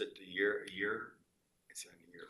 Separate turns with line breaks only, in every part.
The, the year, a year? It's in a year.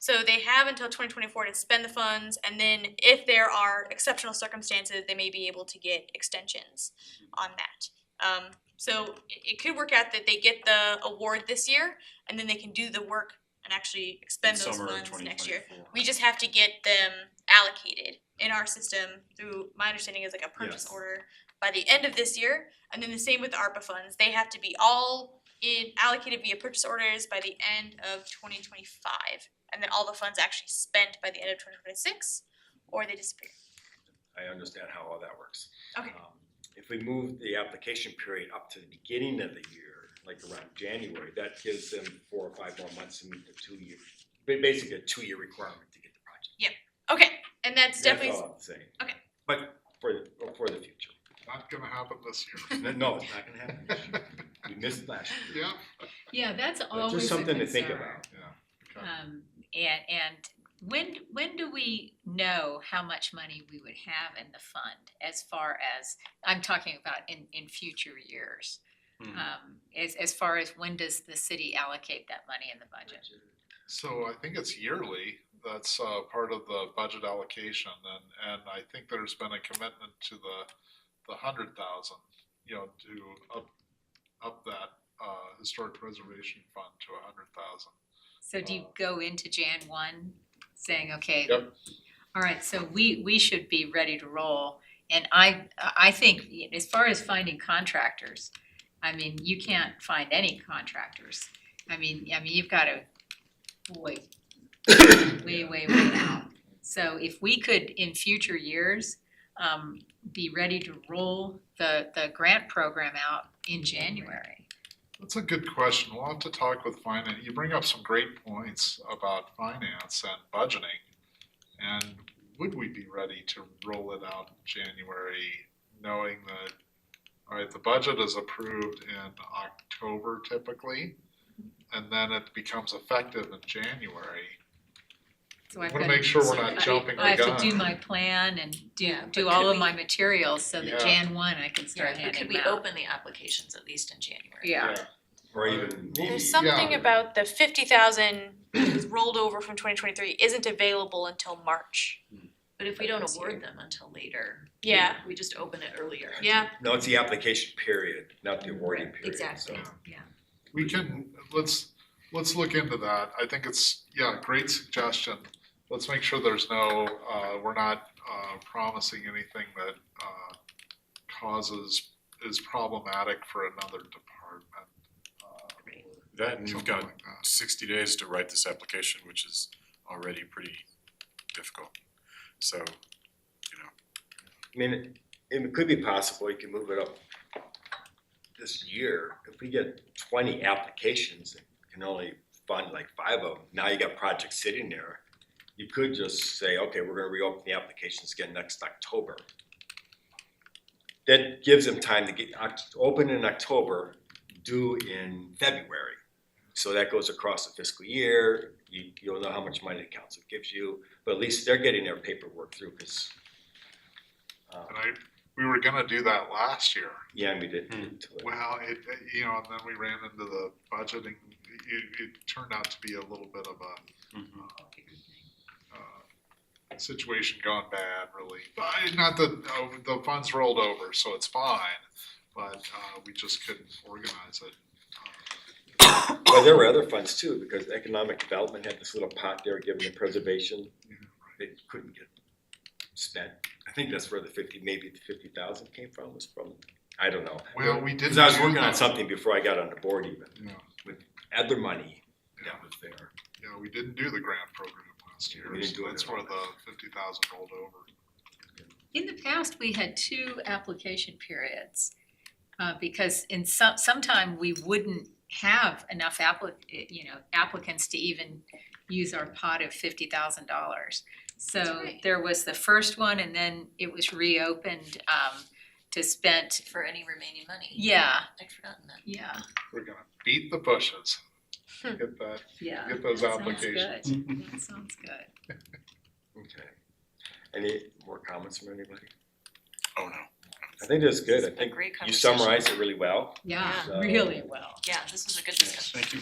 So they have until twenty twenty-four to spend the funds, and then if there are exceptional circumstances, they may be able to get extensions on that. Um, so it, it could work out that they get the award this year, and then they can do the work and actually expend those
Summer of
funds next year.
2024.
We just have to get them allocated in our system through, my understanding is like a purchase
Yes.
order by the end of this year. And then the same with the ARPA funds, they have to be all in allocated via purchase orders by the end of twenty twenty five. And then all the funds actually spent by the end of twenty twenty six, or they disappear.
I understand how all that works.
Okay.
Um, If we move the application period up to the beginning of the year, like around January, that gives them four or five more months to meet the two-year, ba- basically a two-year requirement to get the project.
Okay, and
Uh-huh.
that's
That's
definitely,
all I'm saying.
Okay.
But for, the- for the future.
Not gonna happen this year.
No, No, it's not gonna happen this year. We missed last year.
Yeah,
Yeah, that's
But
always a
Just something to think
concern.
about.
yeah. Okay.
Um, and, and when, when do we know how much money we would have in the fund as far as, I'm talking about in, in future years?
Uh,
Hmm.
Um, as, as far as when does the city allocate that money in the budget?
So I think it's yearly, that's uh part of the budget allocation and and I think there's been a commitment to the the hundred thousand, you know, to up up that uh historic preservation fund to a hundred thousand.
So do you
Uh,
go into Jan one saying, okay,
Yep.
all right, so we, we should be ready to roll? And I, I think as far as finding contractors, I mean, you can't find any contractors. I mean, I mean, you've got to, boy, way, way, way out. So if we could, in future years, um, be ready to roll the, the grant program out in January.
That's a good question. We'll have to talk with finance. You bring up some great points about finance and budgeting. And would we be ready to roll it out in January, knowing that, all right, the budget is approved in October typically, and then it becomes effective in January.
So I've
Wanna
got to
make sure we're
do
not
my-
jumping the
I have to
gun.
do my plan and do,
Yeah,
do
but
all
could
of
we-
my materials so
Yeah.
that Jan one I can start
Yeah, but could
handing
we
them out.
open the applications at least in January?
Yeah,
Or even.
There's
maybe-
there's something
Yeah.
about the fifty thousand rolled over from twenty twenty-three isn't available until March.
But if we don't
This year.
award them until later.
Yeah,
We just open it earlier.
yeah.
No, it's the application period, not the awarding
Right,
period.
exactly.
so.
We can, let's, let's look into that. I think it's, yeah, great suggestion. Let's make sure there's no, uh, we're not, uh, promising anything that, uh, causes, is problematic for another department. uh,
Right.
That and you've
Something
got
like that.
sixty days to write this application, which is already pretty difficult. So,
I mean, it- it could be possible, you can move it up this year, if we get twenty applications and can only fund like five of them, now you got projects sitting there. You could just say, okay, we're gonna reopen the applications again next October. That gives them time to get, oct- open in October, due in February. So that goes across the fiscal year, you, you'll know how much money the council gives you, but at least they're getting their paperwork through, cause uh,
And I, we were gonna do that last year.
yeah, we did.
Hmm.
to it.
Well, it, it- you know, and then we ran into the budgeting, it, it turned out to be a little bit of a,
Mhm.
uh, situation gone bad, really. But I- not that uh, the funds rolled over, so it's fine. But uh, we just couldn't organize it. Uh,
Well, there were other funds too, because economic development had this little pot there given to preservation. They couldn't get spent. I think that's where the fifty, maybe the fifty thousand came from, was from, I don't know.
Well, we didn't.
Cause I was
do
working on
that.
something before I got on the board even,
Yeah,
other money
yeah,
that was there.
yeah. We didn't do the grant program last year.
We didn't
so
do it
that's
at
where
all.
the fifty thousand rolled over.
in the past, we had two application periods. Uh, because in some, sometime we wouldn't have enough applic, you know, applicants to even use our pot of fifty thousand dollars. So
right.
there was the first one and then it was reopened, um, to spend,
For any remaining money.
yeah,
I'd forgotten that.
yeah,
We're gonna beat the bushes.
Hmm.
Get that.
yeah.
Get those
That sounds
applications.
good. That sounds good.
Okay. Any more comments from anybody?
oh no.
I think that's good.
This
I
has been
think
great
you
conversation.
summarized it really well.
Yeah,
Yeah.
really well.
Yeah, this was a good discussion.
Thank you